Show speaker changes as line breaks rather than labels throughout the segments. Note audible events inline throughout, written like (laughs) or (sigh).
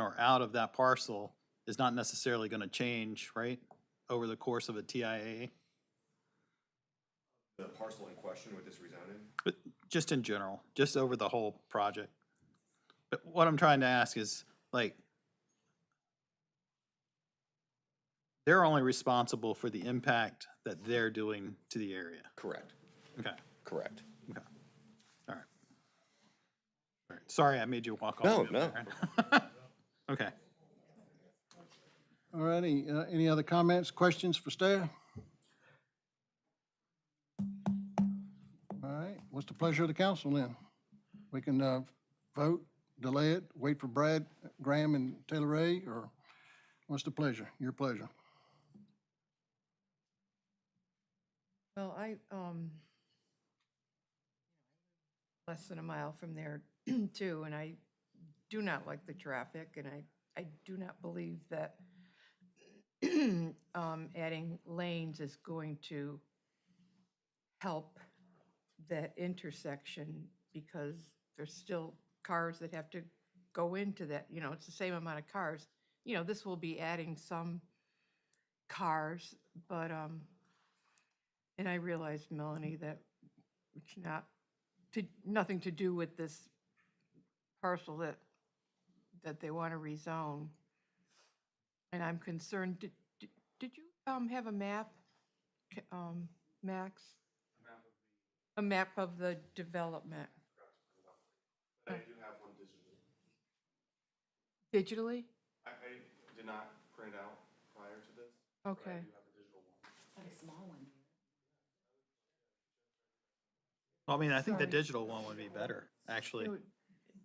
or out of that parcel is not necessarily going to change, right? Over the course of a TIA,
The parcel in question with this rezoning?
but just in general, just over the whole project. But what I'm trying to ask is, like, they're only responsible for the impact that they're doing to the area.
Correct,
Okay,
correct.
okay. All right. All right. Sorry, I made you walk all
No,
the way up there. Okay.
All righty, uh, any other comments, questions for staff? All right, what's the pleasure of the council then? We can uh, vote, delay it, wait for Brad, Graham, and Taylor Ray, or what's the pleasure? Your pleasure.
Well, I, um, less than a mile from there (clears throat) too, and I do not like the traffic, and I, I do not believe that (clears throat) um, adding lanes is going to help that intersection because there's still cars that have to go into that, you know, it's the same amount of cars. You know, this will be adding some cars, but, um, and I realized, Melanie, that it's not, to, nothing to do with this parcel that, that they want to rezone. And I'm concerned, did, did- did you, um, have a map, K- um, Max? A map of the development? I do have one digitally. Digitally?
I, I did not print out prior to this.
Okay.
Well, I mean, I think the
Sorry.
digital one would be better, actually.
It would-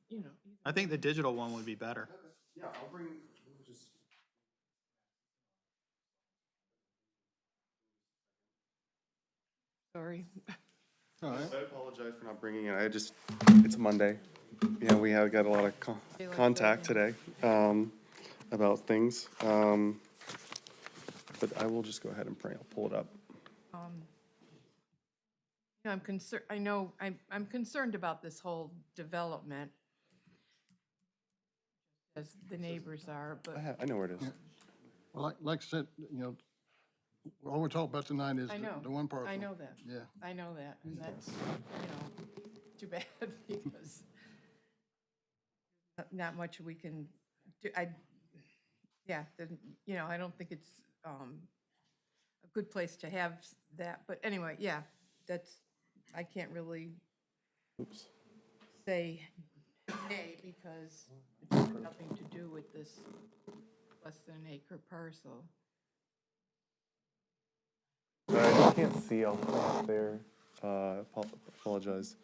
You know,
I think the digital one would be better.
Yeah, I'll bring, just.
sorry.
All right,
I apologize for not bringing it, I just, it's Monday. You know, we have got a lot of con-
Feel like
contact today,
that,
um, about things. Um, but I will just go ahead and print, I'll pull it up.
um, you know, I'm concerned, I know, I'm, I'm concerned about this whole development as the neighbors are,
I
but
ha I know where it is.
well, like, like I said, you know, all we're talking about tonight is
I
the-
know.
the one parcel.
I know that.
Yeah,
I know that, and that's, you know, too bad (laughs) because not- not much we can do. I, yeah, then, you know, I don't think it's um, a good place to have s- that. But anyway, yeah, that's, I can't really
Oops.
say nay because it's got nothing to do with this less than an acre parcel.
Sorry, I just can't see, I'll pull up there, uh, apo- apologize.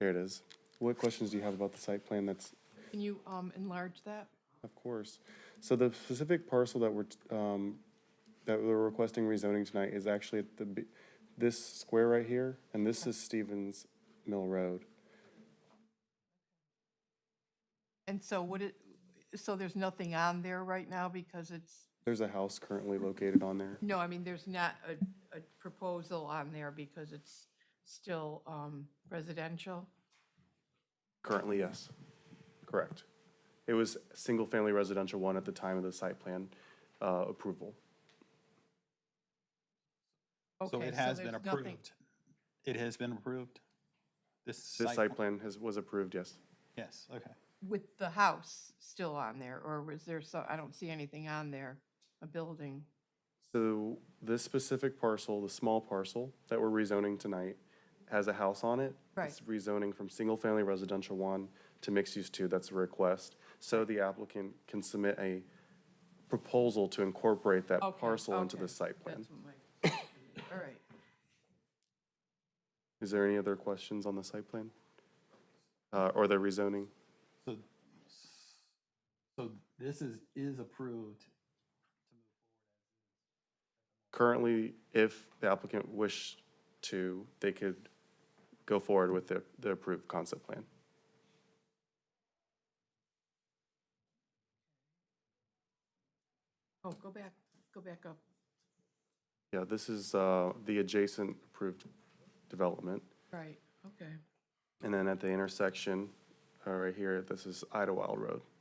There it is. What questions do you have about the site plan that's
Can you um, enlarge that?
Of course. So the specific parcel that we're, t- um, that we're requesting rezoning tonight is actually at the, be- this square right here, and this is Stevens Mill Road.
And so what it, so there's nothing on there right now because it's,
There's a house currently located on there.
no, I mean, there's not a, a proposal on there because it's still um, residential?
Currently, yes. Correct. It was single-family residential one at the time of the site plan, uh, approval.
So
Okay,
it has been
there's nothing-
approved. It has been approved? This
This
site,
site
pl-
plan has, was approved, yes.
yes, okay.
With the house still on there, or was there so, I don't see anything on there, a building.
So this specific parcel, the small parcel that we're rezoning tonight, has a house on it.
Right.
It's rezoning from single-family residential one to mixed-use two, that's a request. So the applicant can submit a proposal to incorporate that
Okay,
parcel into the
okay,
site plan.
That's what my, all right.
Is there any other questions on the site plan? Uh, or the rezoning?
So, so this is, is approved.
Currently, if the applicant wished to, they could go forward with the, the approved concept plan.
Oh, go back, go back up.
Yeah, this is, uh, the adjacent approved development.
Right, okay.
And then at the intersection, uh, right here, this is Idlewild Road.